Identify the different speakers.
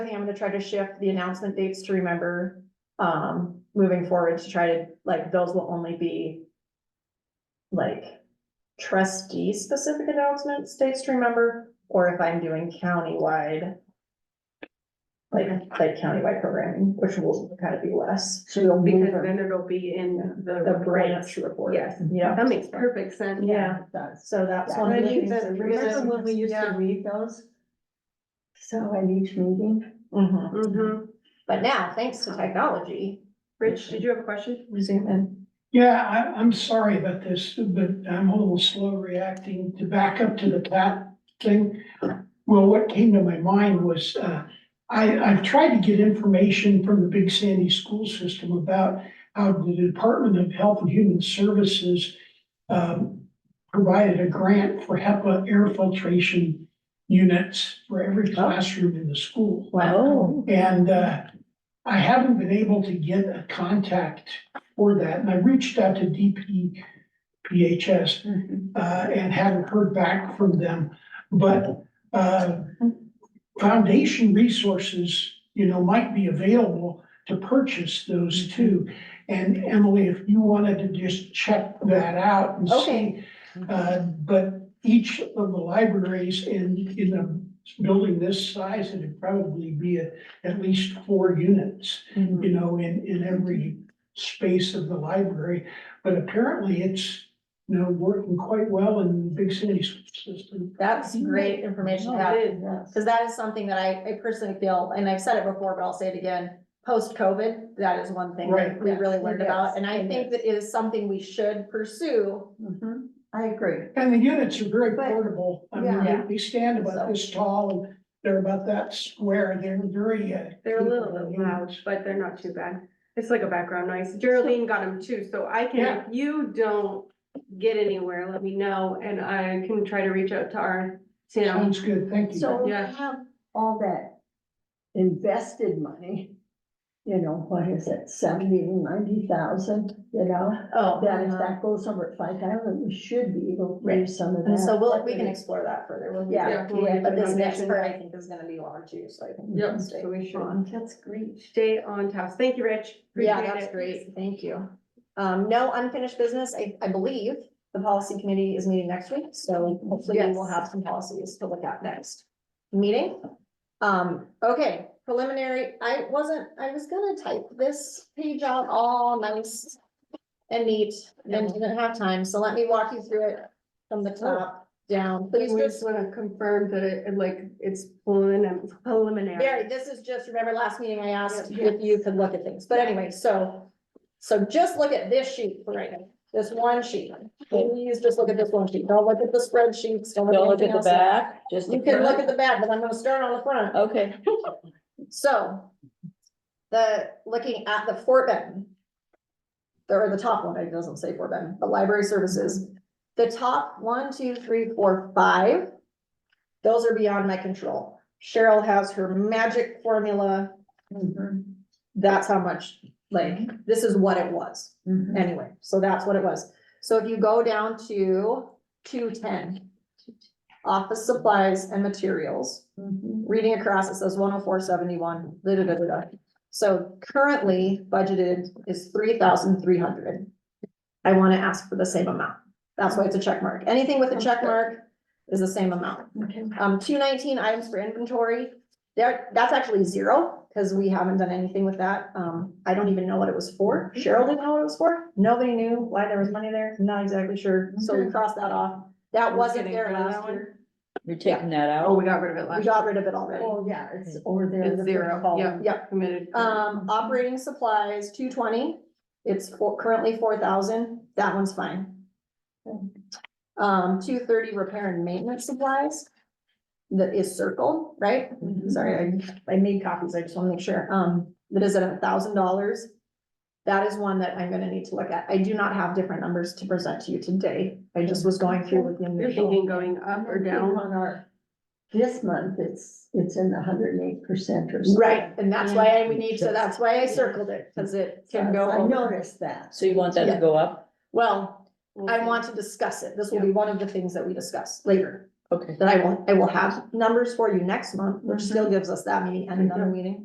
Speaker 1: thing, I'm gonna try to shift the announcement dates to remember, um, moving forward to try to, like, those will only be like trustee specific announcements, dates to remember, or if I'm doing countywide, like, like countywide programming, which will kind of be less,
Speaker 2: So you'll move
Speaker 3: Because
Speaker 2: her.
Speaker 3: then it'll be in the.
Speaker 1: the branch
Speaker 3: reports.
Speaker 1: report.
Speaker 3: Yes.
Speaker 1: Yeah,
Speaker 3: That makes perfect sense.
Speaker 1: yeah,
Speaker 2: Does.
Speaker 1: so that's
Speaker 2: Yeah.
Speaker 1: one of the things.
Speaker 3: that-
Speaker 2: Remember when we used to
Speaker 3: Yeah.
Speaker 2: read those? So at each meeting?
Speaker 1: Mhm.
Speaker 3: Mhm.
Speaker 1: But now, thanks to technology,
Speaker 3: Rich, did you have a question?
Speaker 1: we zoom in.
Speaker 4: Yeah, I, I'm sorry about this, but I'm a little slow reacting to back up to the cat thing. Well, what came to my mind was, uh, I, I've tried to get information from the Big Sandy School System about how the Department of Health and Human Services um, provided a grant for HEPA air filtration units for every classroom in the school.
Speaker 2: Oh.
Speaker 4: And uh, I haven't been able to get a contact for that, and I reached out to DPPHS
Speaker 2: Mm-hmm.
Speaker 4: uh, and haven't heard back from them. But uh, foundation resources, you know, might be available to purchase those too. And Emily, if you wanted to just check that out and see.
Speaker 1: Okay.
Speaker 4: uh, But each of the libraries in, in a building this size, it'd probably be a- at least four units, you know, in, in every space of the library. But apparently it's, you know, working quite well in Big Sandy's system.
Speaker 1: That's great information to have. Cause that is something that I, I personally feel, and I've said it before, but I'll say it again, post-COVID, that is one thing that
Speaker 4: Right.
Speaker 1: we really
Speaker 2: Yes,
Speaker 1: learned
Speaker 2: it
Speaker 1: about.
Speaker 2: is,
Speaker 1: And I
Speaker 2: it
Speaker 1: think that is something we should pursue.
Speaker 2: Mhm. I agree.
Speaker 4: And the units are very
Speaker 2: But-
Speaker 4: portable. I mean,
Speaker 1: Yeah.
Speaker 4: they- they stand about this tall and they're about that square. They're very. uh,
Speaker 3: They're a little
Speaker 4: capable
Speaker 3: bit loud,
Speaker 4: units.
Speaker 3: but they're not too bad. It's like a background noise. Geraldine got them too, so I can,
Speaker 4: Yeah.
Speaker 3: if you don't get anywhere, let me know and I can try to reach out to our Tim.
Speaker 4: Sounds good, thank you.
Speaker 2: So we
Speaker 3: Yeah.
Speaker 2: have all that invested money, you know, what is it, seventy, ninety thousand, you know?
Speaker 1: Oh.
Speaker 2: That if that goes over at five thousand, we should be able to raise some of that.
Speaker 1: And so we'll, we can explore that further. We'll-
Speaker 2: Yeah.
Speaker 3: we'll get
Speaker 1: But
Speaker 3: the
Speaker 1: this next
Speaker 3: foundation.
Speaker 1: part, I think, is gonna be long too, so I think. we
Speaker 3: Yep,
Speaker 1: can stay
Speaker 3: so we should.
Speaker 1: on.
Speaker 2: That's great.
Speaker 3: Stay on task. Thank you, Rich.
Speaker 1: Yeah,
Speaker 3: Appreciate
Speaker 1: that's
Speaker 3: it.
Speaker 1: great. Thank you. Um, no unfinished business. I, I believe the policy committee is meeting next week, so hopefully we will
Speaker 3: Yes.
Speaker 1: have some policies to look at next meeting. Um, okay, preliminary, I wasn't, I was gonna type this page out all nice and neat and didn't have time, so let me walk you through it from the
Speaker 3: Oh.
Speaker 1: top down.
Speaker 3: We
Speaker 1: Please just
Speaker 3: just wanna confirm that it, like, it's prelim-
Speaker 1: Barry,
Speaker 3: preliminary.
Speaker 1: this is just, remember last meeting I asked
Speaker 3: Yeah.
Speaker 1: if you could look at things, but anyway, so. So just look at this sheet for right now, this one sheet, please just look at this one sheet, don't look at the spreadsheets, don't
Speaker 5: Don't
Speaker 1: look
Speaker 5: look
Speaker 1: at
Speaker 5: at the
Speaker 1: anything else.
Speaker 5: back, just. the
Speaker 1: You can look
Speaker 5: front.
Speaker 1: at the back, but I'm gonna start on the front,
Speaker 5: Okay,
Speaker 1: so. The, looking at the Fort Benton. Or the top one, it doesn't say Fort Benton, but library services, the top one, two, three, four, five. Those are beyond my control, Cheryl has her magic formula
Speaker 2: Mm-hmm,
Speaker 1: that's how much, like, this is what it was,
Speaker 2: mm-hmm,
Speaker 1: anyway, so that's what it was. So if you go down to two ten. Office supplies and materials, reading across, it says one oh four seventy-one, da da da da da. So currently budgeted is three thousand three hundred. I wanna ask for the same amount, that's why it's a check mark, anything with a check mark is the same amount.
Speaker 2: Okay.
Speaker 1: Um, two nineteen items for inventory, there, that's actually zero, because we haven't done anything with that. Um, I don't even know what it was for. Cheryl didn't know what it was for. Nobody knew why there was money there. Not exactly sure. So we crossed that off. That
Speaker 3: We're
Speaker 1: wasn't
Speaker 3: getting
Speaker 1: there
Speaker 3: rid of
Speaker 1: last
Speaker 3: that one?
Speaker 1: year.
Speaker 5: you're taking that
Speaker 3: Oh,
Speaker 5: out.
Speaker 3: we got rid of it
Speaker 1: We
Speaker 3: last,
Speaker 1: got rid of it already.
Speaker 2: Oh, yeah, it's over there. in
Speaker 3: It's
Speaker 2: the
Speaker 3: zero,
Speaker 2: column.
Speaker 3: yeah.
Speaker 1: Yep.
Speaker 3: committed. Mm-hmm.
Speaker 1: Um, operating supplies, two twenty. It's for- currently four thousand. That one's fine. Um, two thirty repair and maintenance supplies. That is circle, right?
Speaker 3: Mm-hmm.
Speaker 1: sorry, I, I made copies, I just wanna make sure, um, that is at a thousand dollars. That is one that I'm gonna need to look at. I do not have different numbers to present to you today. I just was going through with the
Speaker 3: You're
Speaker 1: initial.
Speaker 3: thinking going up or
Speaker 2: I think
Speaker 3: down?
Speaker 2: On our, this month, it's, it's in the hundred and eight percent or something.
Speaker 1: Right, and that's why I would need, so that's why I circled it, cause it can go
Speaker 2: I
Speaker 1: over.
Speaker 2: noticed that.
Speaker 5: So you want that
Speaker 1: Yeah.
Speaker 5: to go up?
Speaker 1: Well,
Speaker 3: We'll
Speaker 1: I
Speaker 3: see.
Speaker 1: Mm-hmm. want to discuss it. This will be one of the things that we discuss later.
Speaker 5: Okay.
Speaker 1: Then I will, I will have numbers for you next month, which still gives us that meeting and another meeting.